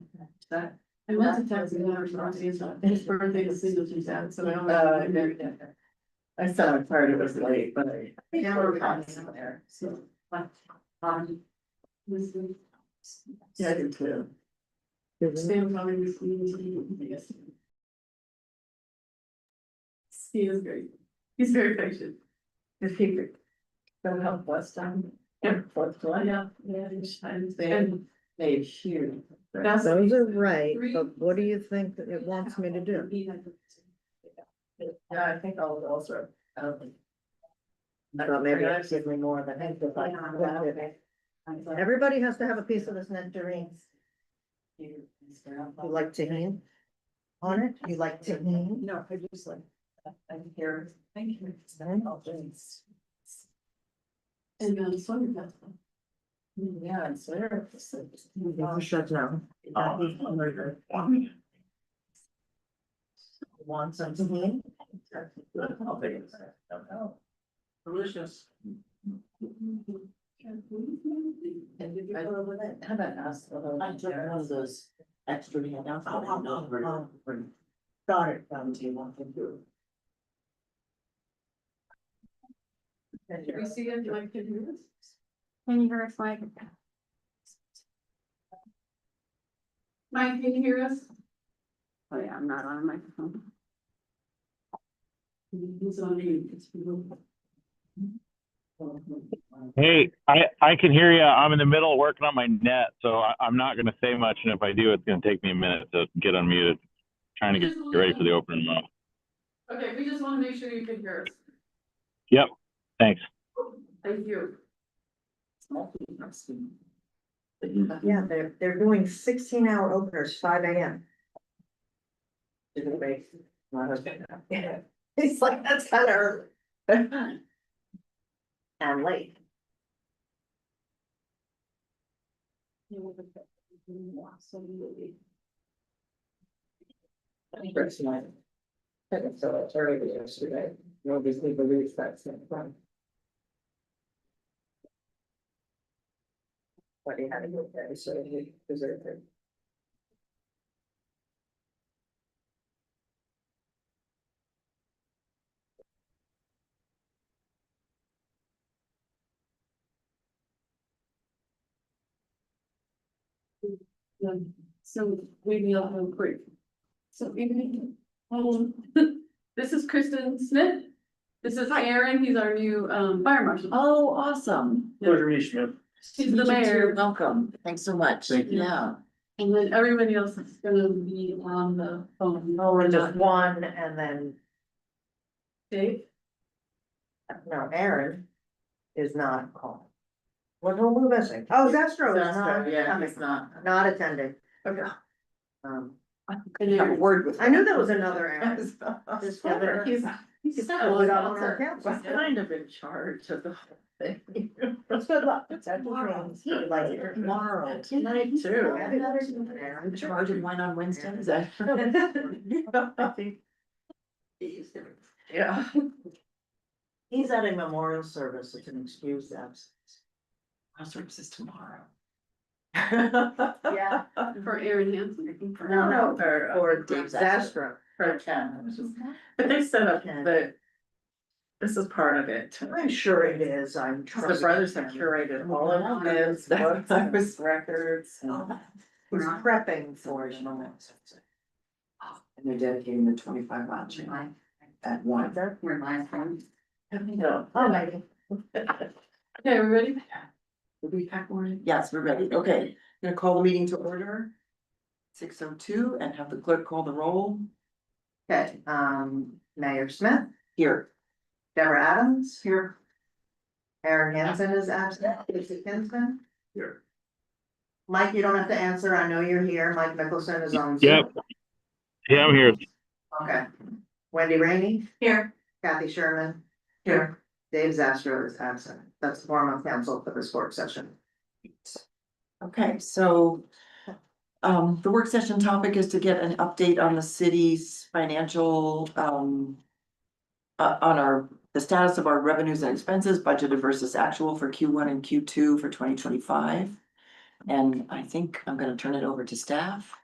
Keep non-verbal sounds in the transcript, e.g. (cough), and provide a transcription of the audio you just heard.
that. I went to Texas and I was his birthday is single to that, so I don't. Uh, know. I saw it part of it was late, but I. Yeah, we're probably somewhere there, so, but, um. This is. Yeah, I did too. Sam probably was leaving, I guess. He is very, he's very patient. If he could go help us on. um, Yeah. Fourth of July, Yeah, yeah, each time, and then they shoot. that's. Those are right, Three- but what do you think that it wants me to do? Yeah, I think all of those are. um, I Well, maybe forgot. it's give me more than I could like. Yeah, okay. Everybody has to have a piece of this nectarine. You like tahini? On it? You like tahini? No, I just like, I'm here, thank you. Mhm. All things. And um, so you got them. Yeah, it's there. Shut down. Uh, Want some tahini? How big is it? Don't know. Delicious. And did you go over that? How about us? I took one of those extra hand outs. Oh, oh, no. Got it from you want to do. Did we see it like ten minutes? Can you hear us like? Mike, can you hear us? Oh yeah, I'm not on a microphone. He's on mute, it's people. Hey, I, I can hear you. I'm in the middle of working on my net, so I, I'm not going to say much. And if I do, it's going to take me a minute to get unmuted. Trying to get get ready for the opening now. Okay, we just want to make sure you can hear us. Thanks. Thank you. Yeah, they're, they're doing sixteen hour openers, five AM. My husband. (laughs) He's like, that's kind of early. (laughs) And late. First night. Second, so it's already yesterday. Nobody believes that's in front. But he had a good day, so he deserved it. Um, So we meal home quick. So even, um, (laughs) this is Kristen Smith. This is Aaron, he's our new um fire marshal. Oh, awesome. Pleasure to meet you. She's the mayor, Welcome. Thanks so much. Thank you. Yeah. and then everybody else is gonna be on the phone. Oh, we're just one and then, Dave, no, Aaron is not called. What are we missing? Oh, Zestro is not Yeah, coming, it's not. not attending. Okay. Um, and Have a Aaron. word with. I knew that was another Aaron. (laughs) Just the other- He's. He's He's got a lot (laughs) on our council. kind of in charge of the whole thing. Let's good luck. (laughs) Tomorrow. Like it. Tomorrow. (laughs) Tonight too. I'm charging mine on Wednesday. (laughs) (laughs) Is that? Yeah. He's at a memorial service, it's an excused absence. Our service is tomorrow. (laughs) Yeah. For Aaron Hanson. No, no, Or, or or disaster. for (laughs) ten. But they set up the. This is part of it. I'm sure it is, I'm. The brothers have curated all of this, Oh, That's- Oh. books, records. and- He's prepping for it. And they're dedicating the twenty-five mile chain at one. We're live from. No. Oh, maybe. Okay, we ready? Did we pack more in? Yes, we're ready. Okay, gonna call the meeting to order. Six oh two and have the clerk call the roll Okay, um, Mayor Smith, here. Deborah Adams. Here. Aaron Hansen is absent, Lisa Kinsman. Here. Mike, you don't have to answer, I know you're here, Mike Mickelson is on. Zoom. Yep. Yeah, I'm here. Okay. Wendy Rainey, Here. Kathy Sherman. Here. Dave Zastro is absent. That's the form of council for this work session. Okay, so um, the work session topic is to get an update on the city's financial um. Uh, on our, the status of our revenues and expenses budgeted versus actual for Q one and Q two for twenty twenty five. And I think I'm gonna turn it over to staff.